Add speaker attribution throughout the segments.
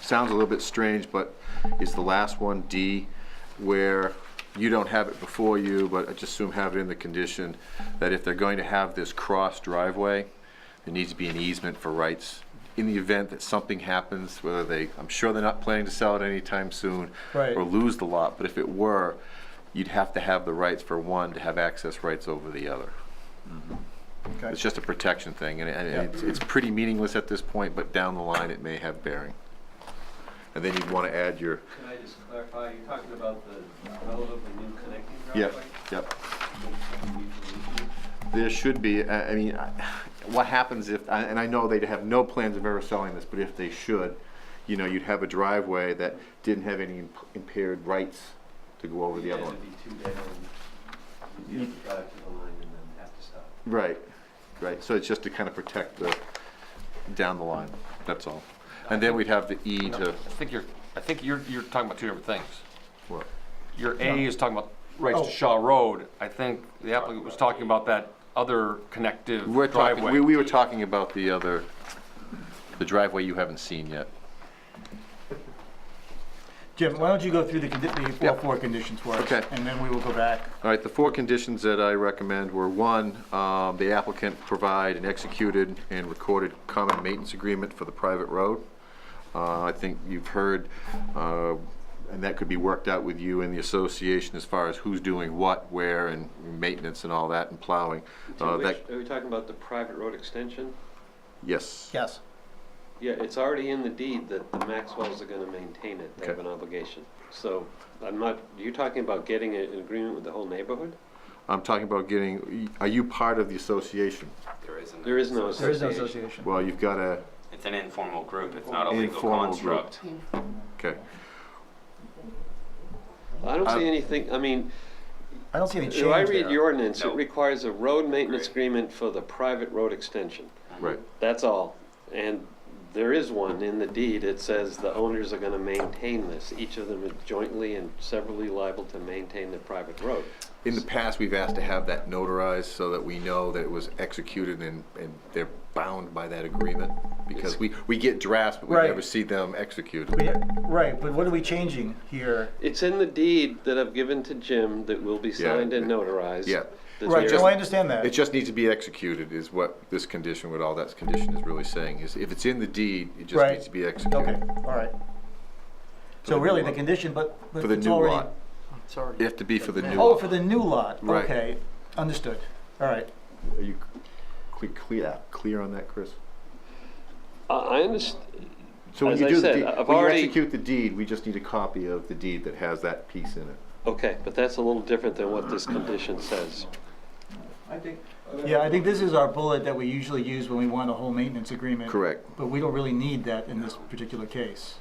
Speaker 1: sounds a little bit strange, but is the last one, D, where you don't have it before you, but I just assume have it in the condition that if they're going to have this cross driveway, there needs to be an easement for rights in the event that something happens, whether they, I'm sure they're not planning to sell it anytime soon.
Speaker 2: Right.
Speaker 1: Or lose the lot, but if it were, you'd have to have the rights for one to have access rights over the other.
Speaker 2: Mm-hmm. Okay.
Speaker 1: It's just a protection thing, and, and
Speaker 2: Yeah.
Speaker 1: it's, it's pretty meaningless at this point, but down the line, it may have bearing. And then you'd wanna add your,
Speaker 3: Can I just clarify, you're talking about the relatively new connecting
Speaker 1: yep,
Speaker 3: driveway?
Speaker 1: yep.
Speaker 3: Yeah.
Speaker 1: There should be, I, I mean, I- what happens if, I- and I know they'd have no plans of ever selling this, but if they should, you know, you'd have a driveway that didn't have any imp- impaired rights to go over the other one.
Speaker 3: It'd be two down, you'd have to drive to the line and then have to stop.
Speaker 1: Right, right, so it's just to kind of protect the, down the line, that's all. And then we'd have the E
Speaker 4: No,
Speaker 1: to,
Speaker 4: I think you're, I think you're, you're talking about two different things.
Speaker 1: what?
Speaker 4: Your A is talking about rights
Speaker 2: Oh.
Speaker 4: to Shaw Road. I think the applicant was talking about that other connective
Speaker 1: We're talking, we,
Speaker 4: driveway.
Speaker 1: we were talking about the other, the driveway you haven't seen yet.
Speaker 2: Jim, why don't you go through the, condi- the four,
Speaker 1: Yep.
Speaker 2: four conditions for us?
Speaker 1: Okay.
Speaker 2: And then we will go back.
Speaker 1: All right, the four conditions that I recommend were, one, um, the applicant provide an executed and recorded common maintenance agreement for the private road. Uh, I think you've heard, uh, and that could be worked out with you and the association as far as who's doing what, where, and maintenance and all that, and plowing. Uh, that-
Speaker 3: Are we talking about the private road extension?
Speaker 1: Yes,
Speaker 2: Yes.
Speaker 3: Yeah, it's already in the deed that the Maxwells are gonna maintain it, they have an
Speaker 1: Okay.
Speaker 3: obligation. So, I'm not, you're talking about getting a- an agreement with the whole neighborhood?
Speaker 1: I'm talking about getting, are you part of the association?
Speaker 5: There isn't.
Speaker 3: There is no
Speaker 2: There is no
Speaker 3: association.
Speaker 2: association.
Speaker 1: Well, you've got a,
Speaker 5: It's an informal group, it's not a legal
Speaker 1: Informal group.
Speaker 5: construct.
Speaker 1: okay.
Speaker 3: I don't
Speaker 1: I-
Speaker 3: see anything, I mean,
Speaker 2: I don't see any change
Speaker 3: if I read your
Speaker 2: there.
Speaker 3: ordinance, it
Speaker 5: No.
Speaker 3: requires a road maintenance
Speaker 5: Right.
Speaker 3: agreement for the private road extension.
Speaker 1: Right,
Speaker 3: That's all. And there is one in the deed, it says the owners are gonna maintain this. Each of them is jointly and severally liable to maintain the private road.
Speaker 1: in the past, we've asked to have that notarized so that we know that it was executed and, and they're bound by that agreement. Because we, we get drafts, but we
Speaker 2: Right.
Speaker 1: never see them executed.
Speaker 2: We- Right, but what are we changing here?
Speaker 3: It's in the deed that I've given to Jim that will be
Speaker 1: Yeah.
Speaker 3: signed and notarized.
Speaker 1: Yeah.
Speaker 3: that
Speaker 2: Right,
Speaker 3: there-
Speaker 2: no, I understand that.
Speaker 1: It just needs to be executed is what this condition, what all that condition is really saying, is if it's in the deed, it just
Speaker 2: Right.
Speaker 1: needs to be executed.
Speaker 2: Okay, all right.
Speaker 1: the
Speaker 2: So
Speaker 1: new
Speaker 2: really, the
Speaker 1: lot.
Speaker 2: condition, but, but
Speaker 1: For the
Speaker 2: it's
Speaker 1: new
Speaker 2: already-
Speaker 1: lot.
Speaker 2: It's already.
Speaker 1: It have to be for the new
Speaker 2: Oh,
Speaker 1: lot.
Speaker 2: for the new lot,
Speaker 1: Right.
Speaker 2: okay, understood, all right.
Speaker 1: Are you clear, clear, clear on that, Chris?
Speaker 3: I, I understand,
Speaker 1: So when
Speaker 3: As
Speaker 1: you
Speaker 3: I
Speaker 1: do the
Speaker 3: said,
Speaker 1: deed,
Speaker 3: I've
Speaker 1: when you
Speaker 3: already-
Speaker 1: execute the deed, we just need a copy of the deed that has that piece in it.
Speaker 3: okay, but that's a little different than what this condition says.
Speaker 6: I think.
Speaker 2: Yeah, I think this is our bullet that we usually use when we want a whole maintenance agreement.
Speaker 1: Correct.
Speaker 2: But we don't really need that in this particular case.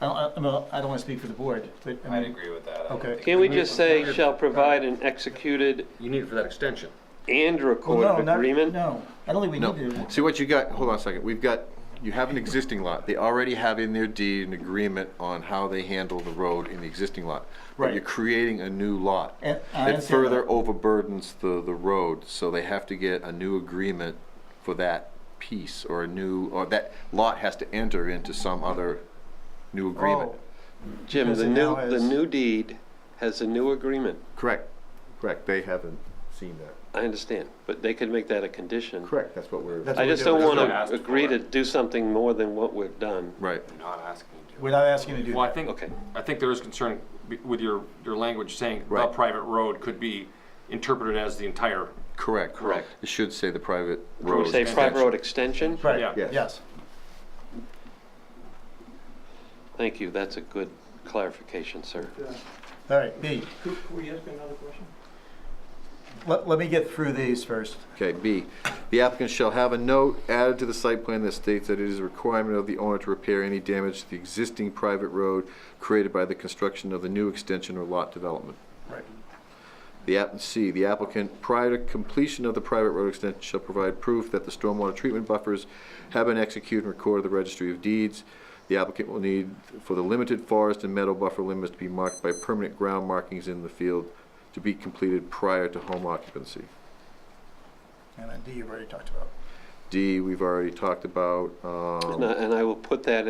Speaker 2: I don't, I- I'm not- I don't want to speak for the board, but I
Speaker 5: I'd
Speaker 2: mean,
Speaker 5: agree with that. I don't
Speaker 2: Hmm. Okay.
Speaker 5: think-
Speaker 3: Can we just say shall provide an executed
Speaker 4: You need it for that extension.
Speaker 3: and
Speaker 2: well, no,
Speaker 3: recorded
Speaker 2: not,
Speaker 3: agreement?
Speaker 2: no, I don't think we
Speaker 1: No,
Speaker 2: need to.
Speaker 1: see what you got, hold on a second, we've got, you have an existing lot, they already have in their deed an agreement on how they handle the road in the existing lot. But
Speaker 2: Right.
Speaker 1: you're creating a new lot.
Speaker 2: And- I
Speaker 1: It
Speaker 2: understand
Speaker 1: further
Speaker 2: that.
Speaker 1: overburdens the, the road, so they have to get a new agreement for that piece, or a new, or that lot has to enter into some other new agreement.
Speaker 2: Oh,
Speaker 3: Jim,
Speaker 2: Because
Speaker 3: the
Speaker 2: it
Speaker 3: new,
Speaker 2: now
Speaker 3: the
Speaker 2: has-
Speaker 3: new deed has a new agreement.
Speaker 1: Correct, correct, they haven't seen that.
Speaker 3: I understand, but they could make that a condition.
Speaker 1: Correct, that's what we're,
Speaker 2: That's
Speaker 3: I
Speaker 2: what we're
Speaker 3: just don't
Speaker 2: doing.
Speaker 3: want
Speaker 5: That's what I asked
Speaker 3: to agree
Speaker 5: for.
Speaker 3: to do something more than what we've done.
Speaker 1: right,
Speaker 5: I'm not asking you to.
Speaker 2: We're not asking you to do
Speaker 4: Well, I
Speaker 2: that.
Speaker 4: think,
Speaker 3: Okay.
Speaker 4: I think there is concern be- with your, your language saying the
Speaker 1: Right.
Speaker 4: private road could be interpreted as the entire,
Speaker 1: correct.
Speaker 3: Correct.
Speaker 1: It should say the private
Speaker 3: Can
Speaker 1: road.
Speaker 3: we say private
Speaker 1: extension.
Speaker 3: road extension?
Speaker 2: Right,
Speaker 4: yeah.
Speaker 1: Yes.
Speaker 2: yes.
Speaker 3: Thank you, that's a good clarification, sir.
Speaker 2: All right, B,
Speaker 6: Could could we ask another question?
Speaker 2: let, let me get through these first.
Speaker 1: Okay, B, the applicant shall have a note added to the site plan that states that it is a requirement of the owner to repair any damage to the existing private road created by the construction of the new extension or lot development.
Speaker 2: Right.
Speaker 1: The app, C, the applicant, prior to completion of the private road extension, shall provide proof that the stormwater treatment buffers have been executed and recorded at the registry of deeds. The applicant will need for the limited forest and meadow buffer limits to be marked by permanent ground markings in the field to be completed prior to home occupancy.
Speaker 2: And then D, you've already talked about.
Speaker 1: D, we've already talked about, um.
Speaker 3: And I and I will put that in